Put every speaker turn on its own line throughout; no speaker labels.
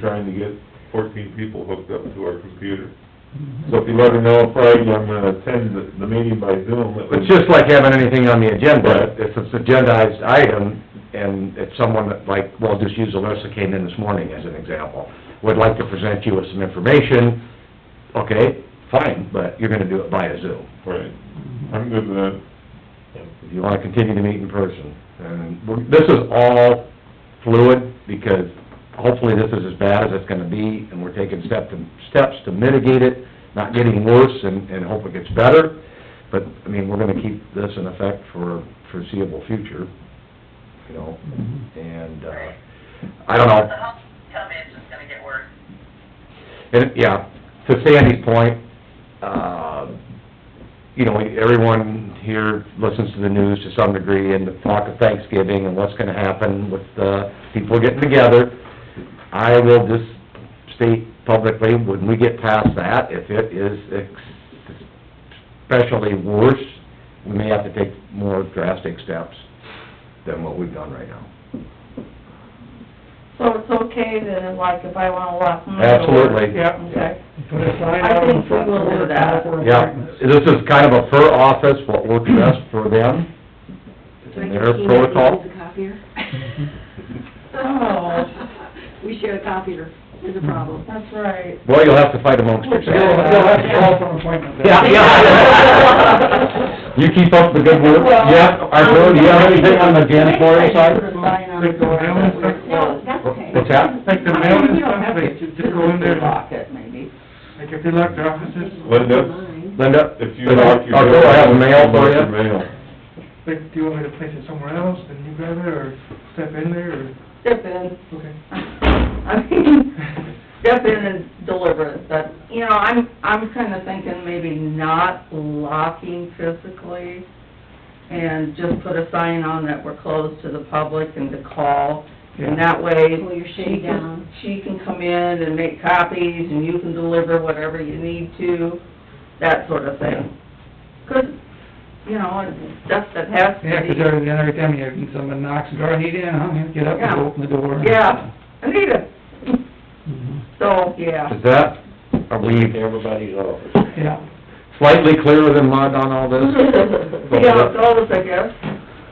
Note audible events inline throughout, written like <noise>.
trying to get fourteen people hooked up to our computer. So if you let her know Friday, I'm gonna attend the, the meeting by Zoom. it
It's
was-
just like having anything on the
Right.
agenda, it's an agendized item, and if someone that, like, well, just use Alyssa came in this morning as an example, would like to present you with some information, okay, fine, but you're gonna do it via Zoom.
Right, I'm good with that.
If you wanna continue to meet in person, and we're- this is all fluid, because hopefully this is as bad as it's gonna be, and we're taking step to, steps to mitigate it, not getting worse, and, and hope it gets better, but, I mean, we're gonna keep this in effect for foreseeable future, you know, and, uh, I don't know.
The health company is just gonna get worse.
And, yeah, to Sandy's point, uh, you know, everyone here listens to the news to some degree and the talk of Thanksgiving and what's gonna happen with, uh, people getting together. I will just state publicly, when we get past that, if it is ex- especially worse, we may have to take more drastic steps than what we've done right now.
So it's okay then, like, if I wanna walk my...
Absolutely.
Yeah.
Okay.
Put a sign
I
out
think
in front
we will
door,
do that.
call for
Yeah,
appointments.
this is kind of a per office, what works best for them,
Do I
and
get
their
to email you
protocol.
with a copier? <laughs>
Oh.
We share a copier, there's a problem.
That's right.
Well, you'll have to fight amongst
You'll,
yourselves.
you'll have to call for an appointment.
Yeah, yeah. You keep up the good work.
Well-
Yeah, Arthur, do you have anything on the janitorial
Put a
side?
sign on
Take the
the door.
mail and-
No, that's okay.
What's that?
Like the mail and stuff, they just go in there, like
Lock it, maybe.
if you locked your offices,
Linda,
Linda?
if you lock your...
Arthur, I have a mail for
Lock your
you.
mail.
like, do you want me to place it somewhere else, then you grab it, or step in there, or,
Step in. <laughs>
okay. <laughs>
I mean, step in and deliver it, but, you know, I'm, I'm kinda thinking maybe not locking physically and just put a sign on that we're closed to the public and to call. And that way,
Pull your
she
shade
can,
down.
she can come in and make copies, and you can deliver whatever you need to, that sort of thing. 'Cause, you know, and stuff that has
Yeah, 'cause
to
every, then every time you, someone knocks, the door, need in, I'm gonna get up and
Yeah.
open the door.
be, yeah, Anita,
Mhm.
so, yeah.
<laughs>
Is that, are we
Yeah,
slightly clearer than mud on all this?
Yeah, it's always, I guess,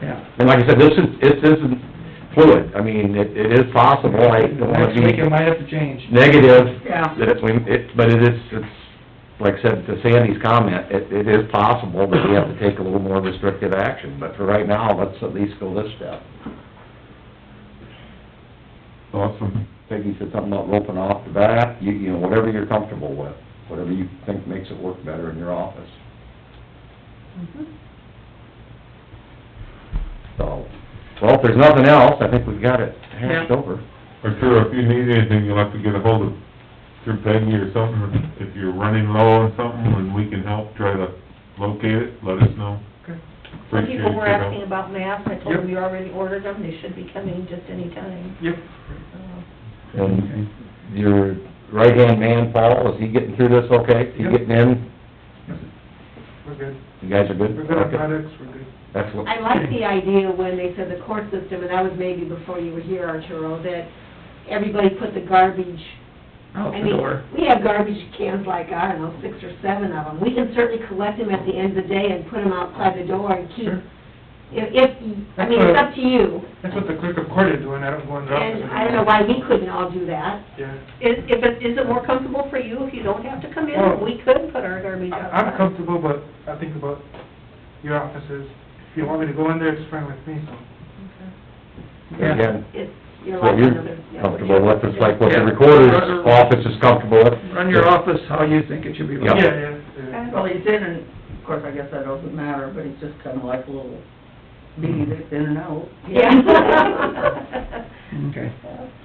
yeah.
And like I said, this is, it isn't fluid. I mean, it, it is possible, I don't wanna
Next week, it
be
might have to change.
negative,
yeah.
that it's, we, it, but it is, it's, like I said, to Sandy's comment, it, it is possible that we have to take a little more restrictive action, but for right now, let's at least go this step.
Awesome.
Peggy said something about roping off the bat, you, you know, whatever you're comfortable with, whatever you think makes it work better in your office.
Mm-hmm.
So, well, if there's nothing else, I think we've got it hashed
Yeah.
over.
Arthur, if you need anything, you'll have to get ahold of your Peggy or something, if you're running low on something, and we can help try to locate it, let us know.
Okay.
Some
Appreciate your
people were
help.
asking about masks, I told them you already ordered them, they should be coming just any time.
Yep.
And your right-hand man, Paul, is he getting through this okay? He
Yep.
getting in?
We're good,
You guys are good?
we're good on
Okay.
products, we're good.
Excellent.
I like the idea when they said the court system, and that was maybe before you were here, Arturo, that everybody put the garbage
Oh,
Out
I mean, we have garbage cans like, I don't know, six or seven of them. We can certainly collect them at the end of the day and put them outside the door and keep,
Sure.
if, if, I mean, it's up to you.
That's what the clerk of court is doing, I don't go in the office.
And I don't know why we couldn't all do that.
Yeah.
Is, if it, is it more comfortable for you if you don't have to come
Well,
in? We could put our garbage
I-
outside.
I'm comfortable, but I think about your offices. If you want me to go in there, it's fine with me, so.
Again,
It's, you're
what
like
you're
another... yeah, what
comfortable
you're-
with, it's like what the
Yeah.
recorder's office is comfortable with.
Run your office how you think it should be
Yeah,
run.
yeah, yeah.
Well, he's in, and of course, I guess that doesn't matter, but he's just kinda like a little bee that's in and out.
<laughs>
<laughs>
<laughs> Yeah.
Okay.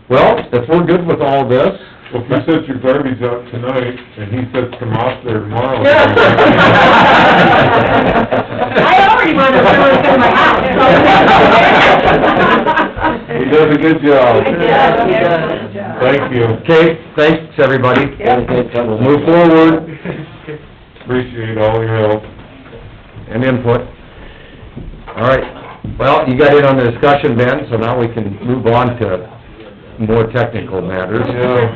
Well, if we're good with all this,
Well, if you
<laughs>
set your garbage out tonight, and he sets them off there
<laughs>
tomorrow...
<laughs>
I already wanted to throw it in my house.
He does a good job.
Yeah, yeah.
Thank you,
Okay, thanks, everybody.
Yeah.
We'll move forward
<laughs> Okay.
appreciate all your help.
and input. All right, well, you got in on the discussion, Ben, so now we can move on to
more technical matters.
Yeah.